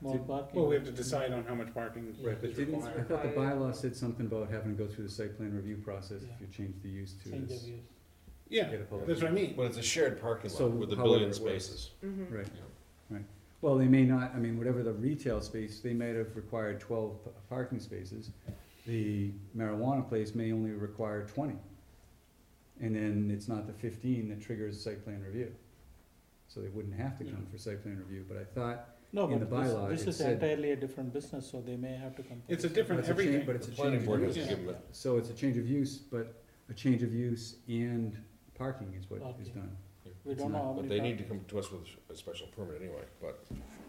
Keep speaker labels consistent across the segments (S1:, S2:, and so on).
S1: more parking.
S2: Well, we have to decide on how much parking
S1: Right,
S3: but
S2: is
S3: didn't, I
S2: required.
S3: thought the
S1: required.
S3: bylaw said something about having to go through the site plan review process if you change the use to
S1: Change of
S3: this.
S1: use.
S2: Yeah,
S3: get a public
S2: that's what I mean.
S4: But it's a shared parking
S3: So
S4: lot with a
S3: however
S4: billion
S3: it works.
S4: spaces.
S5: Mm-hmm.
S3: Right,
S4: Yeah.
S3: right. Well, they may not, I mean, whatever the retail space, they might have required twelve p- parking spaces. The marijuana place may only require twenty. And then it's not the fifteen that triggers site plan review. So they wouldn't have to come for site plan review, but I thought,
S1: No,
S3: in
S1: but
S3: the bylaw,
S1: this,
S3: it
S1: this is
S3: said-
S1: entirely a different business, so they may have to come.
S2: It's a different
S3: That's a change,
S2: everything.
S3: but
S4: The
S3: It's a
S4: planning
S3: change
S4: board
S3: of
S4: has to
S2: use.
S4: give them,
S3: so it's a change of use, but a change of use and parking is what is
S1: Okay.
S3: done.
S1: We don't know
S3: not-
S1: how
S4: but
S1: many.
S4: they need to
S1: parking.
S4: come to us with a special permit anyway, but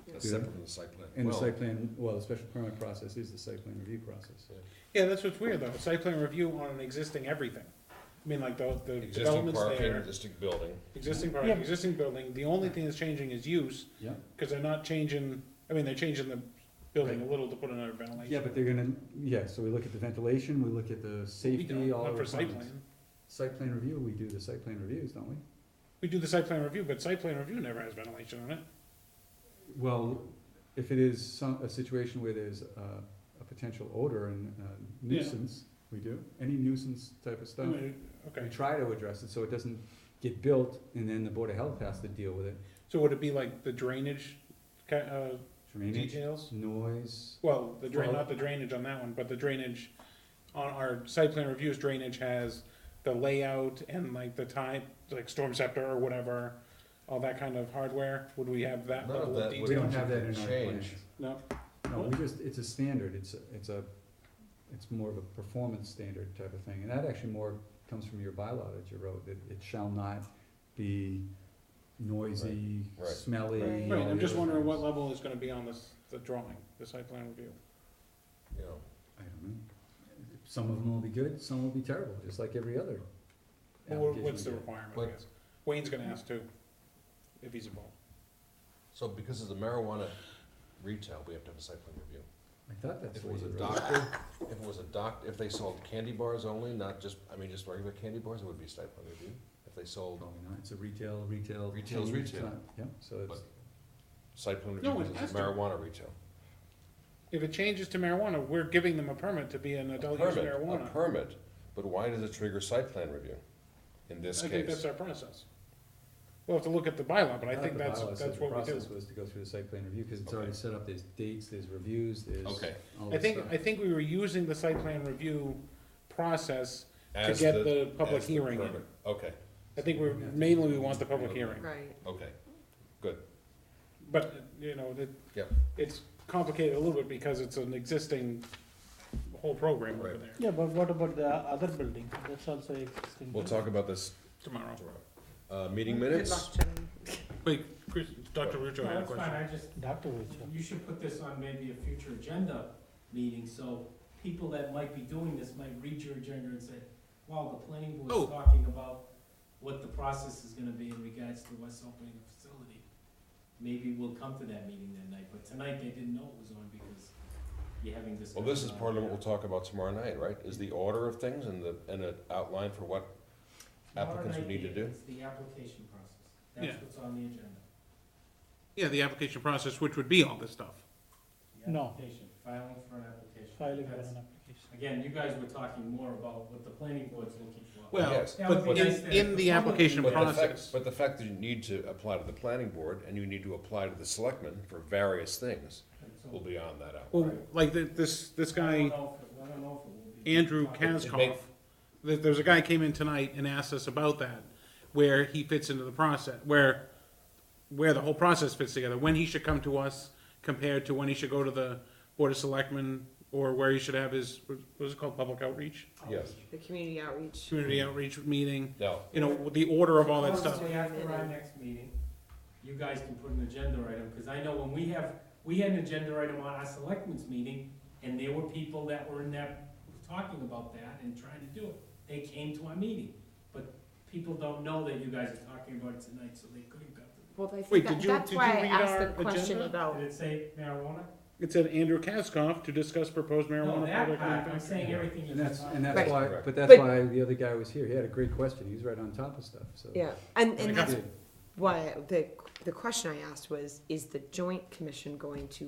S4: that's
S3: Yeah.
S4: separate from the site plan.
S3: And the
S4: Well,
S3: site plan, well, the special permit process is the site plan review process.
S2: Yeah, that's what's weird though, site plan review on an existing everything. I mean, like the, the
S4: Existing
S2: developments
S4: parking,
S2: there,
S4: existing building.
S2: existing parking,
S1: Yeah.
S2: existing building, the only thing that's changing is use,
S3: Yeah.
S2: cause they're not changing, I mean, they're changing the building a little to put another ventilation.
S3: Yeah, but they're gonna, yeah, so we look at the ventilation, we look at the
S2: We don't,
S3: safety, all the
S2: not for site
S3: requirements.
S2: plan.
S3: Site plan review, we do the site plan reviews, don't we?
S2: We do the site plan review, but site plan review never has ventilation on it.
S3: Well, if it is some, a situation where there's uh, a potential odor and uh,
S2: Yeah.
S3: nuisance, we do, any nuisance type of
S2: I
S3: stuff.
S2: mean,
S3: We
S2: Okay,
S3: try to address it, so it doesn't get built, and then the Board of Health has to deal with it.
S2: so would it be like the drainage, ca- uh,
S3: Drainage,
S2: details?
S3: noise,
S2: Well, the drain,
S3: Well-
S2: not the drainage on that one, but the drainage, on our site plan reviews, drainage has the layout and like the time, like storm scepter or whatever, all that kind of hardware, would we have that
S4: None of
S2: level of
S4: that would-
S3: we
S2: detail?
S3: don't have that in our plans.
S4: Change.
S2: No,
S3: No, we just, it's a standard, it's, a- it's a, it's more of a performance standard type of thing, and that actually more comes from your bylaw that you wrote, that it shall not be noisy,
S4: Right, right.
S3: smelly.
S5: Right.
S3: all
S2: right, I'm
S3: the
S2: just
S3: other
S2: wondering what
S3: things.
S2: level is gonna be on this, the drawing, the site plan review.
S4: you know,
S3: I don't know, some of them will be good, some will be terrible, just like every other.
S2: Well,
S3: application
S2: What's the
S3: we get.
S2: requirement, I
S4: Like-
S2: guess? Wayne's gonna ask too, if he's involved.
S4: So because of the marijuana retail, we have to have a site plan review.
S3: I thought that's
S4: If it
S3: what
S4: was a
S3: you wrote.
S4: doctor, if it was a doc, if they sold candy bars only, not just, I mean, just regular candy bars, it would be a site plan review. If they sold
S3: Probably not, it's a retail, retail.
S4: Retail's
S3: chain, it's
S4: retail.
S3: not- Yeah, so it's,
S4: site plan
S2: No,
S4: review,
S2: it
S4: because it's
S2: has to.
S4: marijuana retail.
S2: If it changes to marijuana, we're giving them a permit to be an
S4: A
S2: adult use
S4: permit, a
S2: marijuana.
S4: Permit, but why does it trigger site plan review in this
S2: I think that's
S4: case?
S2: our process. We'll have to look at the bylaw, but I
S3: thought
S2: think
S3: the
S2: that's,
S3: bylaw said
S2: that's
S3: the
S2: what we do.
S3: Process was to go through the site plan review, cause it's
S4: Okay.
S3: already set up, there's dates, there's reviews, there's all this
S4: Okay.
S3: stuff.
S2: I think, I think we were using the site plan review process to
S4: As
S2: get the public
S4: as the
S2: hearing in.
S4: permit. Okay,
S2: I think we're, mainly we want the public hearing,
S5: Right.
S4: okay,
S2: but, you know, that,
S4: Yep.
S2: it's complicated a little bit because it's an existing whole program over
S4: Right.
S2: there
S1: Yeah, but what about the other building? That's also existing.
S4: we'll
S1: right?
S4: talk about this
S2: tomorrow.
S4: tomorrow. Uh, meeting minutes,
S5: Good luck, Jim.
S2: Wait, Chris, Dr. Rucho had a
S6: That's fine,
S2: question.
S6: I just,
S1: Dr. Richa.
S6: you should put this on maybe a future agenda meeting, so people that might be doing this might read your agenda and say, wow, the planning
S2: Oh.
S6: board's talking about what the process is gonna be in regards to us opening a facility. Maybe we'll come to that meeting that night, but tonight they didn't know it was on because you're having this.
S4: well, this is part of what we'll talk about tomorrow night, right? Is the order of things and the, and an outline for what applicants would need to do?
S6: It's the application process,
S2: Yeah.
S6: that's what's on the agenda.
S2: Yeah, the application process, which would be all this stuff.
S6: The
S1: No.
S6: Application, filing for an application.
S1: Filing for
S6: That's-
S1: an application.
S6: Again, you guys were talking more about what the planning board's looking for.
S2: Well,
S4: Yes.
S6: That
S2: but
S6: would be
S2: in,
S6: nice to-
S2: in the application
S4: But the fact,
S2: process,
S4: but the fact that you need to apply to the planning board and you need to apply to the selectmen for various things
S6: So,
S4: will be on that out.
S2: well, like the- this, this
S6: I
S2: guy.
S6: don't know if it- I don't know if it will be-
S2: Andrew
S6: Okay.
S2: Kaskoff, there, there's a guy came in tonight and asked us about that, where he fits into the process, where, where the whole process fits together, when he should come to us compared to when he should go to the Board of Selectmen, or where he should have his, what was it called, public outreach,
S4: Yes,
S5: The community outreach.
S2: community
S6: Mm-hmm.
S2: outreach meeting,
S4: no,
S2: you know, the order of all that stuff.
S6: Obviously, after our next meeting, you guys can put an agenda item, because I know when we have, we had an agenda item on our selectmen's meeting, and there were people that were in that, talking about that and trying to do it. They came to our meeting, but people don't know that you guys are talking about it tonight, so they couldn't go.
S5: Well, I
S2: Wait,
S5: think
S2: did
S5: that,
S2: you-
S5: that's
S2: did you
S5: why I
S2: read
S5: asked
S2: our
S5: the question
S2: agenda?
S5: about,
S6: Did it say marijuana?
S2: It said Andrew Kaskoff to discuss proposed
S6: No,
S2: marijuana
S6: that
S2: product
S6: part, I'm saying
S2: manufacturing.
S6: everything you
S3: And that's,
S6: just.
S3: and that's
S5: Right.
S3: why,
S4: Correct.
S3: but that's
S5: But-
S3: why the other guy was here, he had a great question, he was right on top of stuff, so.
S5: yeah, and,
S2: I
S5: and
S2: got
S5: that's why, the, the question I asked was, is the joint commission going to